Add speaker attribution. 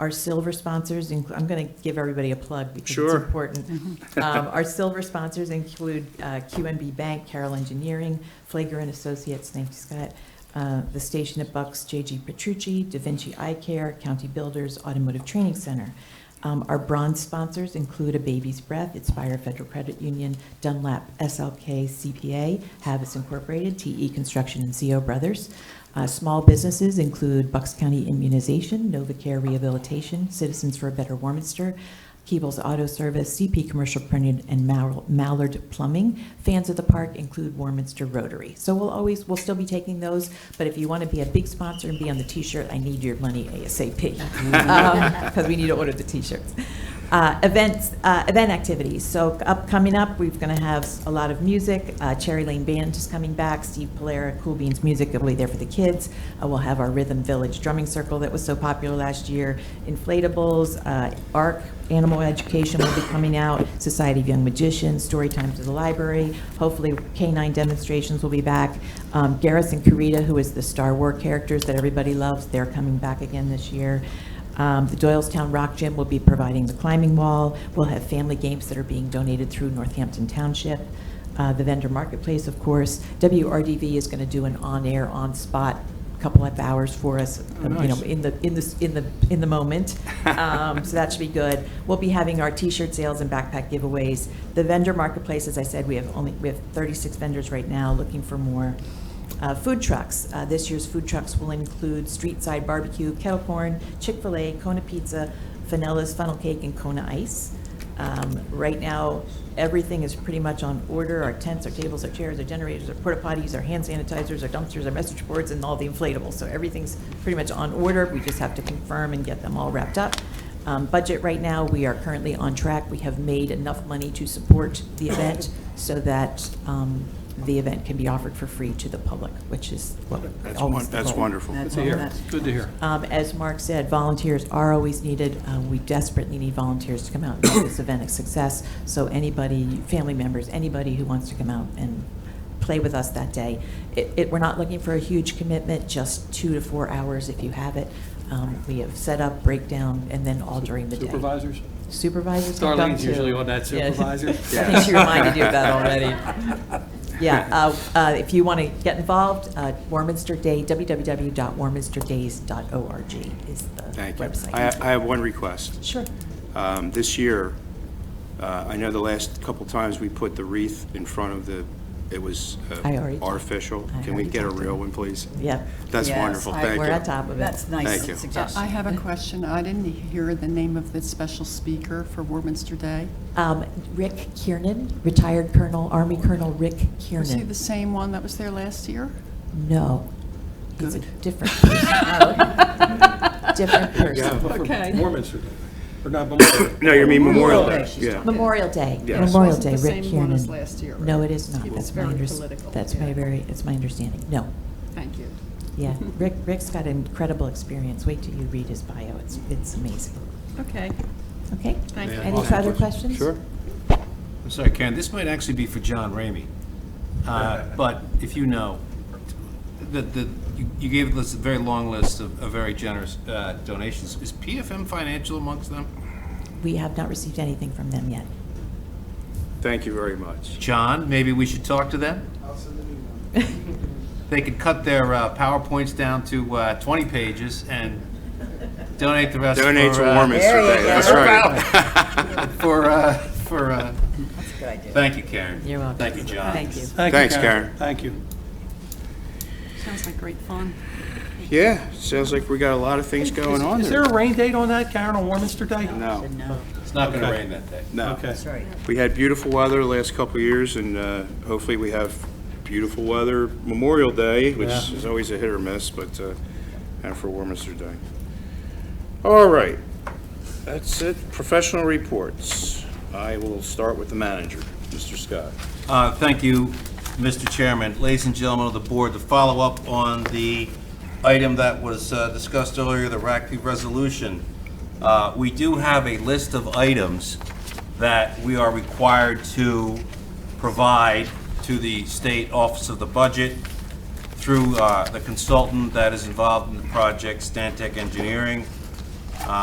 Speaker 1: Our silver sponsors, inc- I'm going to give everybody a plug because it's
Speaker 2: Sure.
Speaker 1: important. Um, Our silver sponsors include uh, QNB Bank, Carroll Engineering, Flager and Associates, thank you, Scott, uh, the station at Bucks, JG Petrucci, Da Vinci Eye Care, County Builders, Automotive Training Center. Um, Our bronze sponsors include A Baby's Breath, Inspire Federal Credit Union, Dunlap, SLK CPA, Havas Incorporated, TE Construction, and CO Brothers. Uh, Small businesses include Bucks County Immunization, Novacare Rehabilitation, Citizens for a Better Warminster, Keebles Auto Service, CP Commercial Printed, and Mallard- Mallard Plumbing. Fans of the park include Warminster Rotary. So we'll always, we'll still be taking those, but if you want to be a big sponsor and be on the T-shirt, I need your money ASAP, because Um, we need to order the T-shirts. Uh, Events, uh, event activities, so up, coming up, we're going to have a lot of music. Uh, Cherry Lane Band is coming back, Steve Polera, Cool Beans Music, will be there for the kids. Uh, We'll have our Rhythm Village Drumming Circle that was so popular last year, inflatables, uh, ARC, Animal Education will be coming out, Society of Young Magicians, Story Time to the Library, hopefully K-9 demonstrations will be back. Um, Garrus and Karita, who is the Star Wars characters that everybody loves, they're coming back again this year. Um, The Doylestown Rock Gym will be providing the climbing wall. We'll have family games that are being donated through Northampton Township. Uh, The vendor marketplace, of course. WRDV is going to do an on-air, on-spot couple of hours for us,
Speaker 2: Oh,
Speaker 1: you know,
Speaker 2: nice.
Speaker 1: in the, in the, in the, in the moment. Um, So that should be good. We'll be having our T-shirt sales and backpack giveaways. The vendor marketplace, as I said, we have only, we have 36 vendors right now looking for more. Uh, Food trucks, Uh, this year's food trucks will include street side barbecue, kettle corn, Chick-fil-A, Kona Pizza, Fanella's Funnel Cake, and Kona Ice. Um, Right now, everything is pretty much on order, our tents, our tables, our chairs, our generators, our porta potties, our hand sanitizers, our dumpsters, our message boards, and all the inflatables. So everything's pretty much on order, we just have to confirm and get them all wrapped up. Um, Budget right now, we are currently on track, we have made enough money to support the event so that um, the event can be offered for free to the public, which is what
Speaker 2: That's won-
Speaker 1: always the
Speaker 2: That's
Speaker 1: goal.
Speaker 2: wonderful.
Speaker 3: That's
Speaker 2: That's
Speaker 3: all
Speaker 2: here.
Speaker 3: that's-
Speaker 2: Good to hear.
Speaker 1: Um, As Mark said, volunteers are always needed. Uh, We desperately need volunteers to come out and make this event a success. So anybody, family members, anybody who wants to come out and play with us that day. It, it- we're not looking for a huge commitment, just two to four hours if you have it. Um, We have set up, breakdown, and then all during the day.
Speaker 2: Supervisors?
Speaker 1: Supervisors have come
Speaker 2: Darlene's usually
Speaker 1: too.
Speaker 2: on that
Speaker 1: Yeah.
Speaker 2: supervisor.
Speaker 1: I think she reminded you of that already. Yeah, uh, uh, if you want to get involved, uh, Warminster Day, www.warminsterdays.org is the
Speaker 2: Thank you.
Speaker 1: website.
Speaker 2: I I have one request.
Speaker 1: Sure.
Speaker 2: Um, This year, uh, I know the last couple times we put the wreath in front of the, it was uh,
Speaker 1: I already-
Speaker 2: artificial.
Speaker 1: I
Speaker 2: Can we
Speaker 1: already
Speaker 2: get a
Speaker 1: talked to
Speaker 2: real
Speaker 1: them.
Speaker 2: one, please?
Speaker 1: Yep.
Speaker 2: That's
Speaker 3: Yes,
Speaker 2: wonderful,
Speaker 3: I-
Speaker 2: thank you.
Speaker 1: We're on top of it.
Speaker 3: That's
Speaker 2: Thank you.
Speaker 3: nice
Speaker 4: I
Speaker 3: suggestion.
Speaker 4: have a question. I didn't hear the name of the special speaker for Warminster Day.
Speaker 1: Um, Rick Kiernan, retired Colonel, Army Colonel Rick
Speaker 4: Was he the
Speaker 1: Kiernan.
Speaker 4: same one that was there last year?
Speaker 1: No. He's a
Speaker 4: Good.
Speaker 1: different person. Different person.
Speaker 4: Okay.
Speaker 2: Warminster Day, or not Memorial No, you mean Memorial Day, yeah.
Speaker 1: Memorial Day,
Speaker 2: Yes.
Speaker 1: Memorial Day,
Speaker 4: Wasn't the
Speaker 1: Rick Kiernan.
Speaker 4: same one as last year,
Speaker 1: No,
Speaker 4: right?
Speaker 1: it is not.
Speaker 4: He was
Speaker 1: That's my
Speaker 4: very
Speaker 1: understanding.
Speaker 4: political,
Speaker 1: That's my
Speaker 4: yeah.
Speaker 1: very, it's my understanding. No.
Speaker 4: Thank you.
Speaker 1: Yeah, Rick, Rick's got incredible experience. Wait till you read his bio. It's, it's amazing.
Speaker 4: Okay,
Speaker 1: Okay?
Speaker 4: thank you.
Speaker 1: Any further questions?
Speaker 2: Sure.
Speaker 5: I'm sorry, Karen, this might actually be for John Ramey. Uh, But if you know, the, the, you- you gave us a very long list of, of very generous uh, donations. Is PFM Financial amongst them?
Speaker 1: We have not received anything from them yet.
Speaker 2: Thank you very much.
Speaker 5: John, maybe we should talk to them? They could cut their uh, PowerPoints down to uh, 20 pages and donate the rest for.
Speaker 2: Donate to
Speaker 5: uh,
Speaker 2: Warminster Day, that's right.
Speaker 5: For, uh, for, uh, thank you, Karen.
Speaker 1: You're welcome.
Speaker 5: Thank you, John.
Speaker 1: Thank you.
Speaker 2: Thanks, Karen.
Speaker 3: Thank you.
Speaker 4: Sounds like great fun.
Speaker 2: Yeah, sounds like we got a lot of things going on
Speaker 3: Is there
Speaker 2: there.
Speaker 3: a rain date on that, Karen, on Warminster Day?
Speaker 2: No,
Speaker 5: It's not going to rain that day.
Speaker 2: no.
Speaker 3: Okay.
Speaker 6: Sorry.
Speaker 2: We had beautiful weather the last couple of years, and uh, hopefully we have beautiful weather Memorial Day, which
Speaker 3: Yeah.
Speaker 2: is always a hit or miss, but, uh, and for Warminster Day. All right, that's it. Professional reports. I will start with the manager, Mr. Scott.
Speaker 5: Uh, Thank you, Mr. Chairman. Ladies and gentlemen of the board, to follow up on the item that was uh, discussed earlier, the RACP resolution, uh, we do have a list of items that we are required to provide to the State Office of the Budget through uh, the consultant that is involved in the project, Stantec Engineering.